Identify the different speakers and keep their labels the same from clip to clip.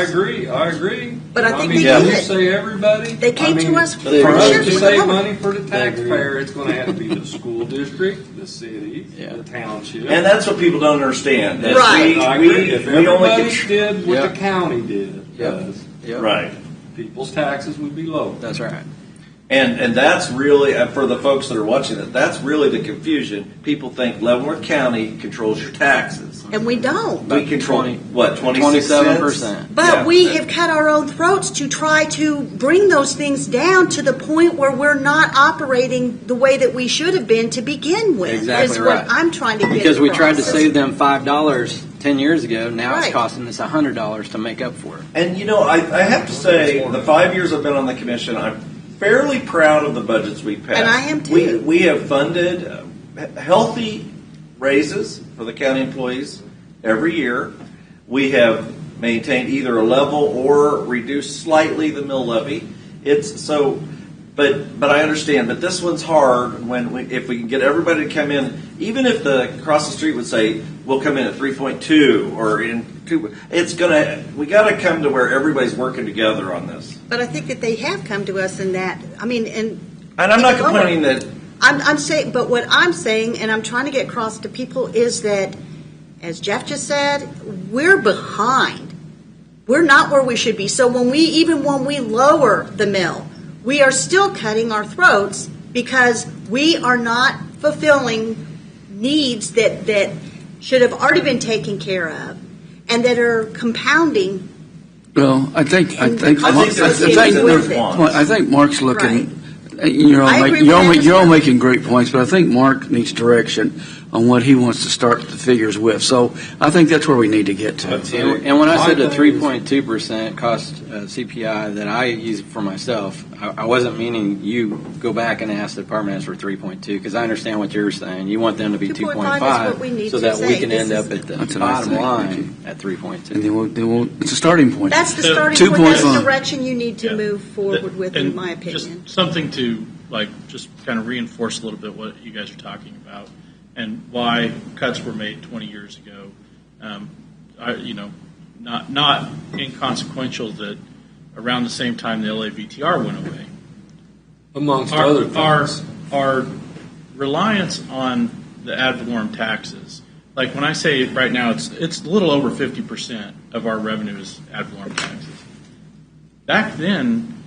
Speaker 1: agree, I agree.
Speaker 2: But I think
Speaker 1: mean,
Speaker 2: they
Speaker 1: when
Speaker 2: did
Speaker 1: you
Speaker 2: it.
Speaker 1: say everybody.
Speaker 2: They came
Speaker 1: I
Speaker 2: to
Speaker 1: mean,
Speaker 2: us
Speaker 1: For
Speaker 2: with a
Speaker 1: us
Speaker 2: check
Speaker 1: to
Speaker 2: with
Speaker 1: save
Speaker 2: a dollar.
Speaker 1: money for the taxpayer, it's gonna have to be the school district, the city,
Speaker 3: Yeah.
Speaker 1: the township.
Speaker 4: And that's what people don't understand. that
Speaker 2: Right.
Speaker 1: I
Speaker 4: We,
Speaker 1: agree,
Speaker 4: we,
Speaker 1: if
Speaker 4: we only
Speaker 1: everybody
Speaker 4: contr-
Speaker 1: did what
Speaker 3: Yeah.
Speaker 1: the county did,
Speaker 3: Yeah.
Speaker 1: does,
Speaker 3: Yep.
Speaker 4: right.
Speaker 1: people's taxes would be low.
Speaker 3: That's right.
Speaker 4: And and that's really uh, for the folks that are watching it. That's really the confusion. People think Leavenworth County controls your taxes.
Speaker 2: And we don't.
Speaker 4: We control
Speaker 3: 20
Speaker 4: what twenty
Speaker 3: Twenty-seven percent.
Speaker 2: But
Speaker 4: Yeah.
Speaker 2: we have cut our own throats to try to bring those things down to the point where we're not operating the way that we should have been to begin with.
Speaker 3: Exactly
Speaker 2: is
Speaker 3: right.
Speaker 2: what I'm trying to get
Speaker 3: Because we tried to
Speaker 2: across.
Speaker 3: save them five dollars ten years ago, now it's
Speaker 2: Right.
Speaker 3: costing us a hundred dollars to make up for it.
Speaker 4: And you know, I, I have to say, the five years I've been on the commission, I'm fairly proud of the budgets we passed.
Speaker 2: And I am too.
Speaker 4: We, we have funded uh, he- healthy raises for the county employees every year. We have maintained either a level or reduced slightly the mill levy. It's so, but but I understand. But this one's hard when we, if we can get everybody to come in, even if the across the street would say we'll come in at three point two or in two, it's gonna we got to come to where everybody's working together on this.
Speaker 2: But I think that they have come to us in that. I mean, and
Speaker 4: And I'm not complaining that
Speaker 2: I'm, I'm saying, but what I'm saying, and I'm trying to get across to people, is that, as Jeff just said, we're behind. We're not where we should be. So when we, even when we lower the mill, we are still cutting our throats because we are not fulfilling needs that, that should have already been taken care of and that are compounding.
Speaker 5: Well, I think, I
Speaker 2: And
Speaker 5: think,
Speaker 2: the
Speaker 5: Mar- I
Speaker 4: cost
Speaker 5: think,
Speaker 4: associated with it.
Speaker 5: well, I think Mark's looking, uh, you're all
Speaker 2: I agree
Speaker 5: making,
Speaker 2: with
Speaker 5: you're all,
Speaker 2: that
Speaker 5: ma-
Speaker 2: as
Speaker 5: you're all
Speaker 2: well.
Speaker 5: making great points, but I think Mark needs direction on what he wants to start the figures with. So I think that's where we need to get to.
Speaker 3: And, and when I
Speaker 1: My
Speaker 3: said the
Speaker 1: thing is-
Speaker 3: three point two percent cost uh, CPI that I use for myself, I, I wasn't meaning you go back and ask the department heads for three point two because I understand what you're saying. You want them to be two
Speaker 2: 2.5 is
Speaker 3: point
Speaker 2: what
Speaker 3: five
Speaker 2: we need
Speaker 3: so
Speaker 2: to
Speaker 3: that we
Speaker 2: say.
Speaker 3: can
Speaker 2: This
Speaker 3: end
Speaker 2: is-
Speaker 3: up at the
Speaker 5: That's what I
Speaker 3: bottom
Speaker 5: think.
Speaker 3: line at three point
Speaker 5: And
Speaker 3: two.
Speaker 5: then we'll, then we'll, it's a starting point.
Speaker 2: That's the
Speaker 6: So-
Speaker 2: starting
Speaker 5: Two
Speaker 2: point. That's
Speaker 5: points
Speaker 2: the
Speaker 5: on-
Speaker 2: direction you need to
Speaker 6: Yeah.
Speaker 2: move forward with,
Speaker 6: And
Speaker 2: in my
Speaker 6: just
Speaker 2: opinion.
Speaker 6: Something to, like, just kind of reinforce a little bit what you guys are talking about and why cuts were made 20 years ago. Um, I, you know, not, not inconsequential that around the same time the LAVTR went away,
Speaker 1: Amongst
Speaker 6: our,
Speaker 1: other
Speaker 6: our,
Speaker 1: things.
Speaker 6: our reliance on the ad valorem taxes. Like when I say right now, it's it's a little over fifty percent of our revenue is ad valorem taxes. Back then,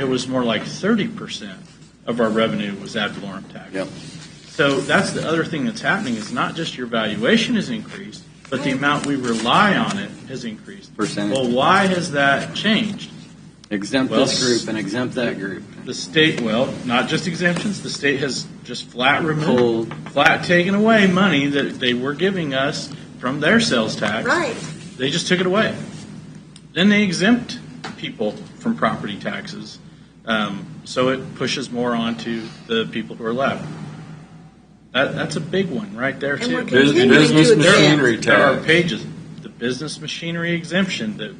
Speaker 6: it was more like thirty percent of our revenue was ad valorem taxes.
Speaker 5: Yep.
Speaker 6: So that's the other thing that's happening is not just your valuation has increased, but the amount we rely on it has increased.
Speaker 3: Percentage.
Speaker 6: Well, why has that changed?
Speaker 3: Exempt
Speaker 6: Well,
Speaker 3: this group and exempt that group.
Speaker 6: The state, well, not just exemptions. The state has just flat
Speaker 3: Pulled.
Speaker 6: removed, flat taken away money that they were giving us from their sales tax.
Speaker 2: Right.
Speaker 6: They just took it away. Then they exempt people from property taxes, um, so it pushes more onto the people who are left. That, that's a big one right there
Speaker 2: And
Speaker 6: too.
Speaker 2: we're
Speaker 1: Bus-
Speaker 2: continuing to
Speaker 1: business
Speaker 2: do it.
Speaker 1: machinery
Speaker 6: There are
Speaker 1: tax.
Speaker 6: pages, the business machinery exemption, that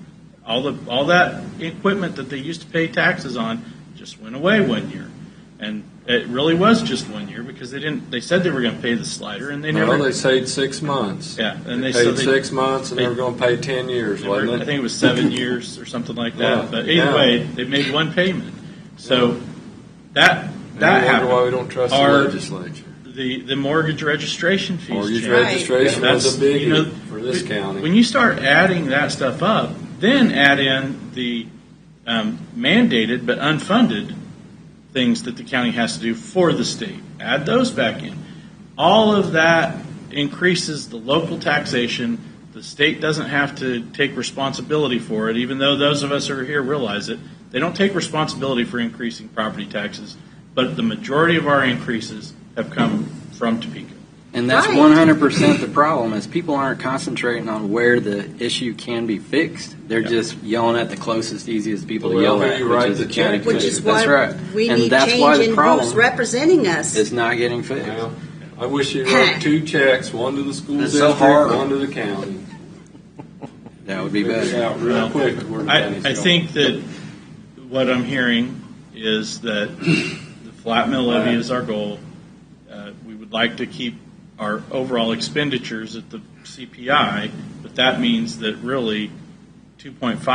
Speaker 6: all the, all that equipment that they used to pay taxes on just went away one year. And it really was just one year because they didn't, they said they were gonna pay the slider and they
Speaker 1: Well,
Speaker 6: never,
Speaker 1: they saved six months.
Speaker 6: yeah, and they, so
Speaker 1: Paid
Speaker 6: they,
Speaker 1: six months and they were gonna pay ten years,
Speaker 6: they were-
Speaker 1: wasn't
Speaker 6: I
Speaker 1: it?
Speaker 6: think it was seven years or something like
Speaker 1: Yeah,
Speaker 6: that. But
Speaker 1: yeah.
Speaker 6: either way, they made one payment. So that,
Speaker 1: And
Speaker 6: that
Speaker 1: I wonder why we
Speaker 6: happened.
Speaker 1: don't trust the
Speaker 6: Our-
Speaker 1: legislature.
Speaker 6: The, the mortgage registration fees
Speaker 1: Mortgage
Speaker 6: changed.
Speaker 1: registration
Speaker 6: Yeah,
Speaker 1: was a
Speaker 6: that's- you know,
Speaker 1: biggie for this county.
Speaker 6: When you start adding that stuff up, then add in the um, mandated but unfunded things that the county has to do for the state. Add those back in. All of that increases the local taxation. The state doesn't have to take responsibility for it, even though those of us who are here realize it. They don't take responsibility for increasing property taxes, but the majority of our increases have come from Topeka.
Speaker 3: And that's
Speaker 2: Right.
Speaker 3: one hundred percent the problem is people aren't concentrating on where the issue can be fixed. They're
Speaker 6: Yeah.
Speaker 3: just yelling at the closest, easiest people
Speaker 1: Well,
Speaker 3: to yell
Speaker 1: who
Speaker 3: at,
Speaker 1: you
Speaker 3: which
Speaker 1: write
Speaker 3: is
Speaker 1: the
Speaker 3: the county.
Speaker 1: check to.
Speaker 2: Which is
Speaker 3: that's
Speaker 2: why
Speaker 3: right.
Speaker 2: we
Speaker 3: and
Speaker 2: need
Speaker 3: that's why
Speaker 2: change
Speaker 3: the
Speaker 2: in who's
Speaker 3: problem
Speaker 2: representing us.
Speaker 3: is not getting fixed.
Speaker 1: Well, I wish you wrote two checks, one to the school
Speaker 4: It's so
Speaker 1: district,
Speaker 4: hard.
Speaker 1: one to the county.
Speaker 3: that would be
Speaker 1: Figure it
Speaker 3: better.
Speaker 1: out real
Speaker 6: Well,
Speaker 1: quick where the
Speaker 6: I,
Speaker 1: money's
Speaker 6: I
Speaker 1: going.
Speaker 6: think that what I'm hearing is that the flat mill levy is our goal. Uh, we would like to keep our overall expenditures at the CPI, but that means that really 2.5